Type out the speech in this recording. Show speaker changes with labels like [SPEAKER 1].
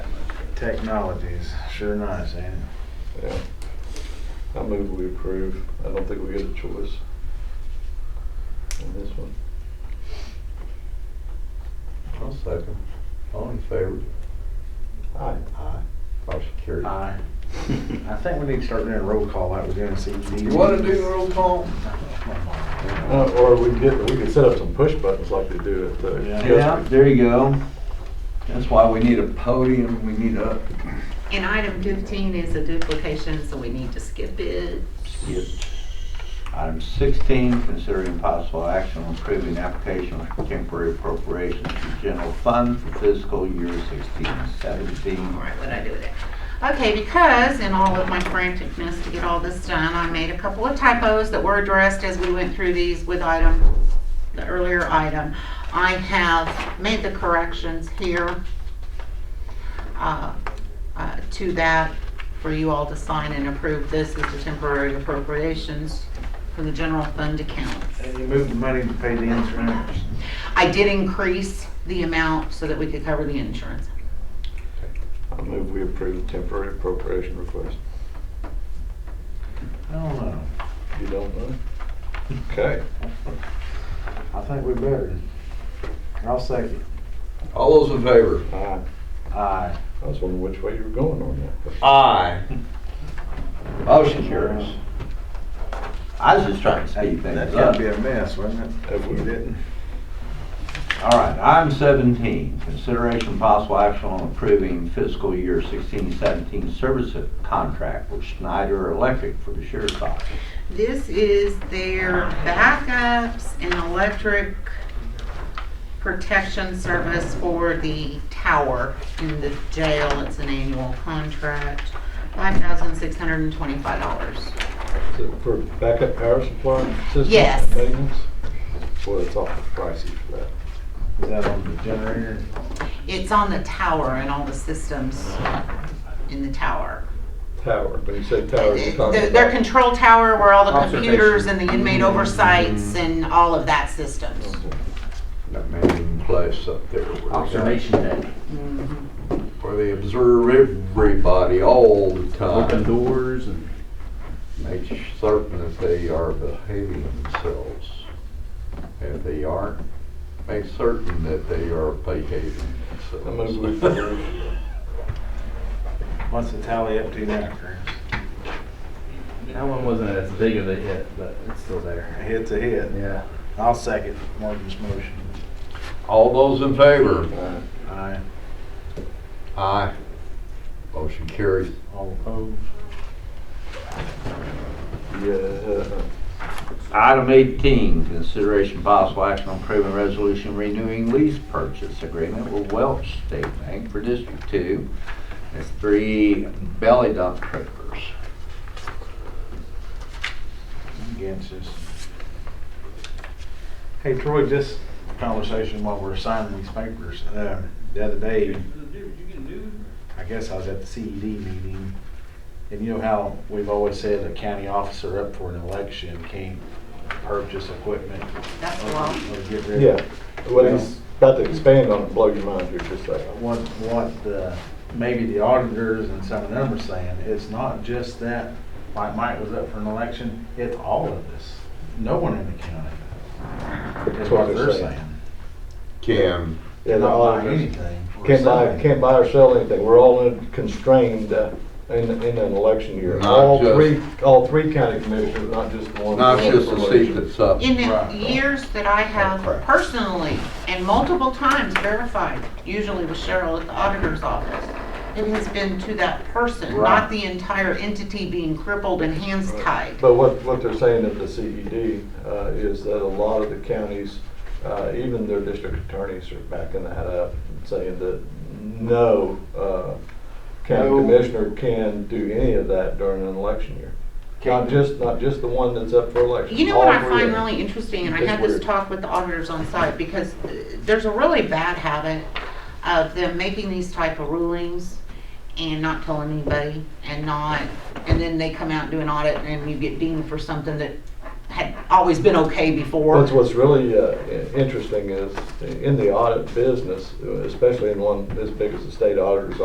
[SPEAKER 1] Technologies, sure nice, ain't it?
[SPEAKER 2] Yeah. I move we approve. I don't think we get a choice in this one.
[SPEAKER 3] I'll second. All in favor?
[SPEAKER 2] Aye.
[SPEAKER 3] Aye. Motion carried.
[SPEAKER 1] Aye. I think we need to start doing a roll call like we did in CED.
[SPEAKER 3] You wanna do the roll call?
[SPEAKER 2] Uh, Or we can get, we can set up some push buttons like they do at the.
[SPEAKER 1] Yeah.
[SPEAKER 3] Yeah, there you go. That's why we need a podium, we need a,
[SPEAKER 4] And item fifteen is a duplication, so we need to skip it.
[SPEAKER 3] Item 16, considering possible action on approving application for temporary appropriations to general fund for fiscal year 16 and 17.
[SPEAKER 4] All right, what'd I do with it? Okay, because in all of my franticness to get all this done, I made a couple of typos that were addressed as we went through these with item, the earlier item. I have made the corrections here uh, uh, to that for you all to sign and approve. This is the temporary appropriations for the general fund accounts.
[SPEAKER 1] And you move the money to pay the insurance.
[SPEAKER 4] I did increase the amount so that we could cover the insurance.
[SPEAKER 2] I move we approve the temporary appropriation request.
[SPEAKER 1] I don't know.
[SPEAKER 2] You don't know? Okay.
[SPEAKER 1] I think we better. I'll second.
[SPEAKER 3] All those in favor?
[SPEAKER 2] Aye.
[SPEAKER 1] Aye.
[SPEAKER 2] I was wondering which way you were going on that.
[SPEAKER 3] Aye. Motion carries. I was just trying to speed
[SPEAKER 1] That's
[SPEAKER 3] things
[SPEAKER 1] gotta
[SPEAKER 3] up.
[SPEAKER 1] be a mess, wouldn't it?
[SPEAKER 2] If we didn't.
[SPEAKER 3] All right, item 17, consideration possible action on approving fiscal year 16-17 service contract with Schneider Electric for the sheriff's office.
[SPEAKER 4] This is their backups and electric protection service for the tower in the jail. It's an annual contract, five thousand six hundred and twenty-five dollars.
[SPEAKER 2] Is it For backup power supply system?
[SPEAKER 4] Yes.
[SPEAKER 2] Maintenance? Boy, it's awful pricey for that.
[SPEAKER 1] Is that on the generator?
[SPEAKER 4] It's on the tower and all the systems in the tower.
[SPEAKER 2] Tower, when you say tower, you're Oh, talking
[SPEAKER 4] The-
[SPEAKER 2] about.
[SPEAKER 4] Their control tower where all the
[SPEAKER 2] Observation.
[SPEAKER 4] computers and the inmate oversights and all of that systems.
[SPEAKER 3] That main place up there. where they got-
[SPEAKER 1] deck.
[SPEAKER 3] Where they observe everybody all the time,
[SPEAKER 5] Open doors and
[SPEAKER 3] make certain that they are behaving themselves. If they aren't, make certain that they are behaving
[SPEAKER 2] I move we
[SPEAKER 3] themselves.
[SPEAKER 2] approve.
[SPEAKER 1] What's the tally up to now, Chris?
[SPEAKER 5] that one wasn't as big of a hit, but it's still
[SPEAKER 1] A
[SPEAKER 5] there.
[SPEAKER 1] hit's a hit.
[SPEAKER 5] Yeah.
[SPEAKER 1] I'll second Morgan's motion.
[SPEAKER 3] All those in favor?
[SPEAKER 2] Aye.
[SPEAKER 1] Aye.
[SPEAKER 3] Aye. Motion carries.
[SPEAKER 1] All opposed?
[SPEAKER 2] Yeah.
[SPEAKER 3] Item 18, consideration possible action on approving resolution renewing lease purchase agreement with Welch State Bank for District 2. It's three belly dump trailers.
[SPEAKER 1] I'm Against this. Hey Troy, just a conversation while we're signing these papers. Um, The other day, I guess I was at the CED meeting, and you know how we've always said a county officer up for an election can't purchase equipment
[SPEAKER 4] That's
[SPEAKER 1] or
[SPEAKER 4] a lot.
[SPEAKER 1] or get rid of
[SPEAKER 2] Yeah, what he's about to expand on, blow your mind here just a second.
[SPEAKER 1] what, what the, maybe the auditors and some of them are saying, it's not just that, like Mike was up for an election, it's all of this. No one in the county. That's what they're saying.
[SPEAKER 3] Can.
[SPEAKER 2] Yeah, the
[SPEAKER 1] Not buying
[SPEAKER 2] auditors
[SPEAKER 1] anything or
[SPEAKER 2] Can't buy,
[SPEAKER 1] selling.
[SPEAKER 2] can't buy or sell anything, we're all in- constrained uh, in, in an election year.
[SPEAKER 3] Not
[SPEAKER 2] All
[SPEAKER 3] just-
[SPEAKER 2] three, all three county commissioners, not just the one.
[SPEAKER 3] Not just the seat that's up.
[SPEAKER 4] In
[SPEAKER 1] Right.
[SPEAKER 4] the years that I have
[SPEAKER 3] Correct.
[SPEAKER 4] personally and multiple times verified, usually with Cheryl at the auditor's office, it has been to that person,
[SPEAKER 1] Right.
[SPEAKER 4] not the entire entity being crippled and hands tied.
[SPEAKER 2] But what, what they're saying at the CED uh, is that a lot of the counties, uh, even their district attorneys are backing that up, and saying that no uh, county
[SPEAKER 1] No.
[SPEAKER 2] commissioner can do any of that during an election year. Not just, not just the one that's up for election.
[SPEAKER 4] You know what
[SPEAKER 2] all
[SPEAKER 4] I
[SPEAKER 2] three
[SPEAKER 4] find
[SPEAKER 2] of them.
[SPEAKER 4] really interesting, and I
[SPEAKER 2] It's
[SPEAKER 4] had this
[SPEAKER 2] weird.
[SPEAKER 4] talk with the auditors on site, because uh, there's a really bad habit of them making these type of rulings and not telling anybody, and not, and then they come out and do an audit, and you get deemed for something that had always been okay before.
[SPEAKER 2] What's, what's really uh, i- interesting is, in the audit business, especially in one as big as the state auditor's